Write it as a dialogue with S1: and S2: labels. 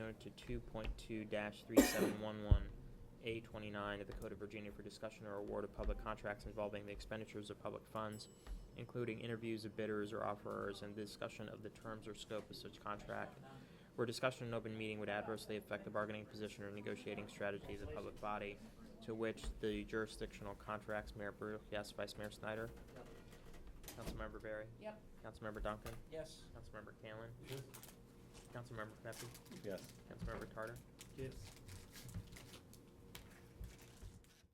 S1: to two point two three seven one one A twenty-nine of the Code of Virginia for discussion or award of public contracts involving the expenditures of public funds, including interviews of bidders or offerers and discussion of the terms or scope of such contract, where discussion in open meeting would adversely affect the bargaining position or negotiating strategy of the public body, to which the jurisdictional contracts, Mayor Burke, yes, Vice Mayor Snyder, Councilmember Barry,
S2: Yep.
S1: Councilmember Duncan,
S2: Yes.
S1: Councilmember Callan, Councilmember Pepe,
S3: Yes.
S1: Councilmember Tarter,
S4: Yes.